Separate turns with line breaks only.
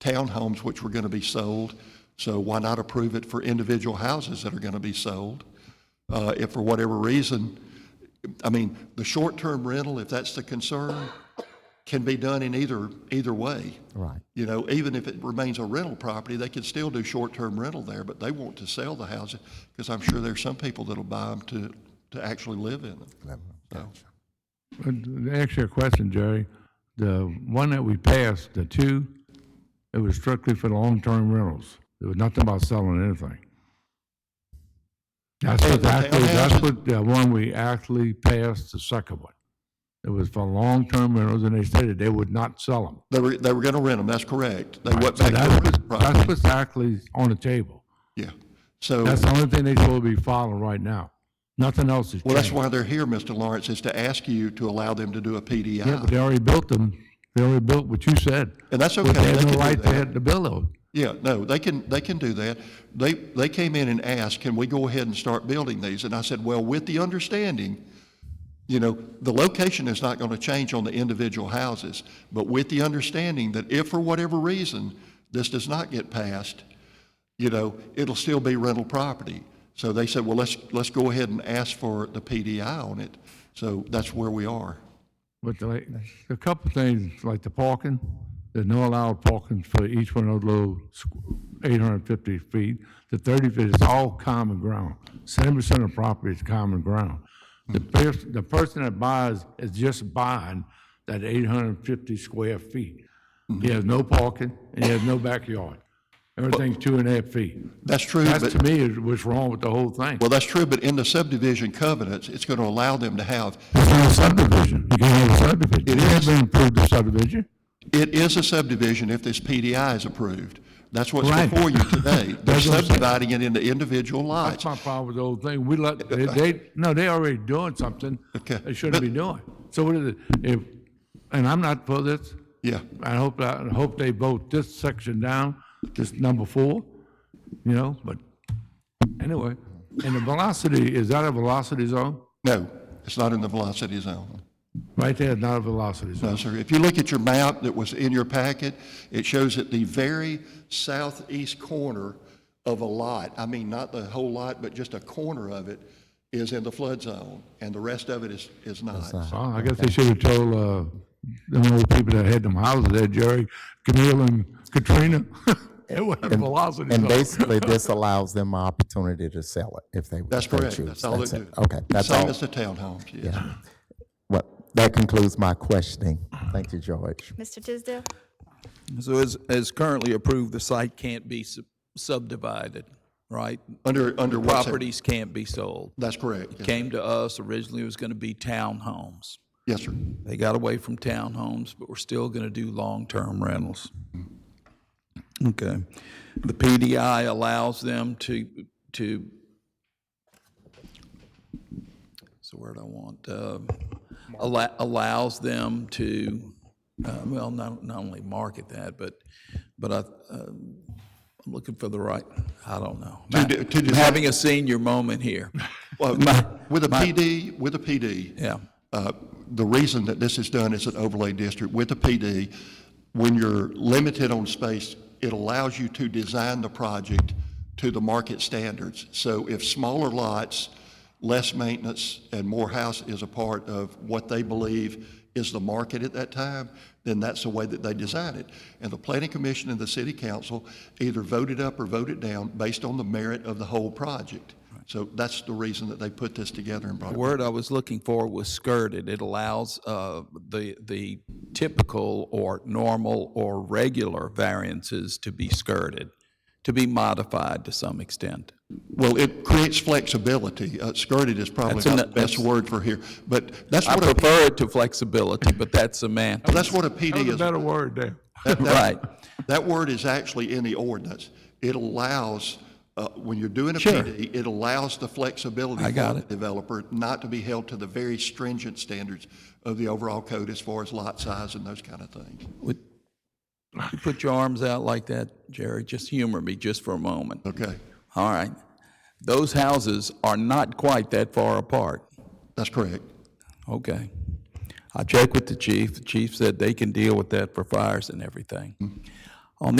townhomes which were going to be sold. So why not approve it for individual houses that are going to be sold? Uh, If for whatever reason, I mean, the short-term rental, if that's the concern, can be done in either, either way.
Right.
You know, even if it remains a rental property, they can still do short-term rental there, but they want to sell the houses because I'm sure there's some people that'll buy them to, to actually live in them.
Uh, To answer your question, Jerry, the one that we passed, the two, it was strictly for the long-term rentals. There was nothing about selling anything. That's what, actually- that's what the one we actually passed, the second one. It was for long-term rentals, and they stated they would not sell them.
They were, they were going to rent them, that's correct. They went
So
back
that's
to rental
what- That's
property,
what's actually on the table.
yeah. So,
That's the only thing they will be following right now. Nothing else is
well, that's
changed.
why they're here, Mr. Lawrence, is to ask you to allow them to do a
Yeah, but
PDI.
they already built them. They already built what you said.
And that's okay.
But they
they
have
can
no
do
right
that.
to have the bill though.
Yeah, no, they can, they can do that. They, they came in and asked, can we go ahead and start building these? And I said, well, with the understanding, you know, the location is not going to change on the individual houses, but with the understanding that if for whatever reason this does not get passed, you know, it'll still be rental property. So they said, well, let's, let's go ahead and ask for the PDI on it. So that's where we are.
But like, a couple things, like the parking, there's no allowed parking for each one of those little eight hundred and fifty feet. The thirty feet is all common ground. Seventy percent of property is common ground. The person, the person that buys is just buying that eight hundred and fifty square feet.
Mm-hmm.
He has no parking, and he has no backyard. Everything's two and a half feet.
That's true,
That's
but,
to me is what's wrong with the whole thing.
well, that's true, but in the subdivision covenants, it's going to allow them to have
It's not a subdivision. You can't have a subdivision.
It
It has
is.
been approved a subdivision.
It is a subdivision if this PDI is approved. That's what's
Right.
before you today. They're
That's what I'm saying.
subdividing it into individual lots.
That's my problem with the whole thing. We let, they, they, no, they already doing something
Okay.
they shouldn't be doing. So what is it? If, and I'm not for this.
Yeah,
I hope, I hope they vote this section down, this number four, you know, but anyway. And the velocity, is that a velocity zone?
no, it's not in the velocity zone.
Right there is not a velocity zone.
No, sir. If you look at your map that was in your packet, it shows that the very southeast corner of a lot, I mean, not the whole lot, but just a corner of it, is in the flood zone, and the rest of it is, is not.
Well, I guess they should have told, uh, them old people that had them houses there, Jerry, Camille and Katrina. It was a velocity zone.
And basically, this allows them an opportunity to sell it if they if
That's
they
correct.
choose.
That's all it
That's
do.
it. Okay, that's
Same
all.
as the townhomes, yes.
Well, that concludes my questioning. Thank you, George.
Mr. Tisdale?
So as, as currently approved, the site can't be sub- subdivided, right?
Under, under what's.
Properties can't be sold.
That's correct. yes.
Came to us, originally it was going to be townhomes.
Yes, sir.
They got away from townhomes, but we're still going to do long-term rentals. Okay. The PDI allows them to, to, what's the word I want? Um, alla- Allows them to, uh, well, not, not only market that, but, but I, uh, I'm looking for the right, I don't know.
de- to
I'm Having a senior moment here.
Well, with a PD, with a PD,
Yeah.
uh, the reason that this is done as an overlay district, with a PD, when you're limited on space, it allows you to design the project to the market standards. So if smaller lots, less maintenance, and more house is a part of what they believe is the market at that time, then that's the way that they design it. And the planning commission and the city council either voted up or voted down based on the merit of the whole project. So that's the reason that they put this together and brought
The
it.
word I was looking for was skirted. It allows uh, the, the typical or normal or regular variances to be skirted, to be modified to some extent.
Well, it creates flexibility. Uh, Skirted is probably
That's an-
not the best
that's-
word for here, but that's
I
what a,
prefer it to flexibility, but that's a man.
that's what a PD
That was
is.
a better word there.
That- that-
Right.
That word is actually in the ordinance. It allows, uh, when you're doing a
Sure.
PD, it allows the flexibility
I got
for
it.
the developer not to be held to the very stringent standards of the overall code as far as lot size and those kind of things.
Would you Put your arms out like that, Jerry. Just humor me just for a moment.
Okay,
All right. Those houses are not quite that far apart.
that's correct.
Okay. I checked with the chief. The chief said they can deal with that for fires and everything.